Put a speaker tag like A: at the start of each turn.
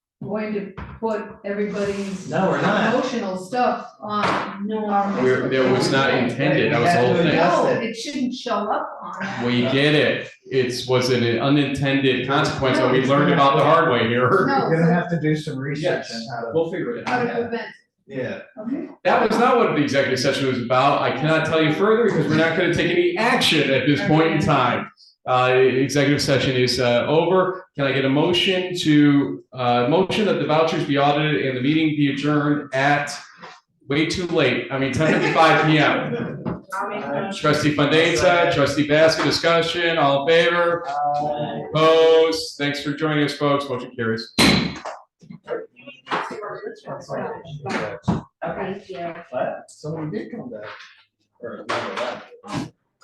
A: going to put everybody's
B: No, we're not.
A: emotional stuff on.
C: No.
A: our
D: We're- that was not
A: Facebook page.
D: intended, that was the whole
B: We
D: thing.
B: have to
A: No,
B: adjust it.
A: it shouldn't show up on that.
D: We get it, it's, was an unintended consequence that we learned about the hard way here.
A: No,
E: You're gonna
A: so
E: have to do some research on
B: Yes.
E: how to.
B: We'll figure it
A: how to
B: out.
A: prevent,
B: Yeah.
A: okay,
D: That was not what the executive session was about, I cannot tell you further because we're not gonna take any action at this point in time. Uh, executive session is, uh, over, can I get a motion to, uh, motion that the vouchers be audited and the meeting be adjourned at way too late, I mean, ten fifty-five P M.
E: Uh,
D: Trustee Fandesa, trustee Baskin, discussion, all in favor?
E: Uh,
D: Opposed? Thanks for joining us, folks. Motion carries.
E: that's all. Yeah.
C: Thank you.
E: What? Someone did come back. Or, no, that.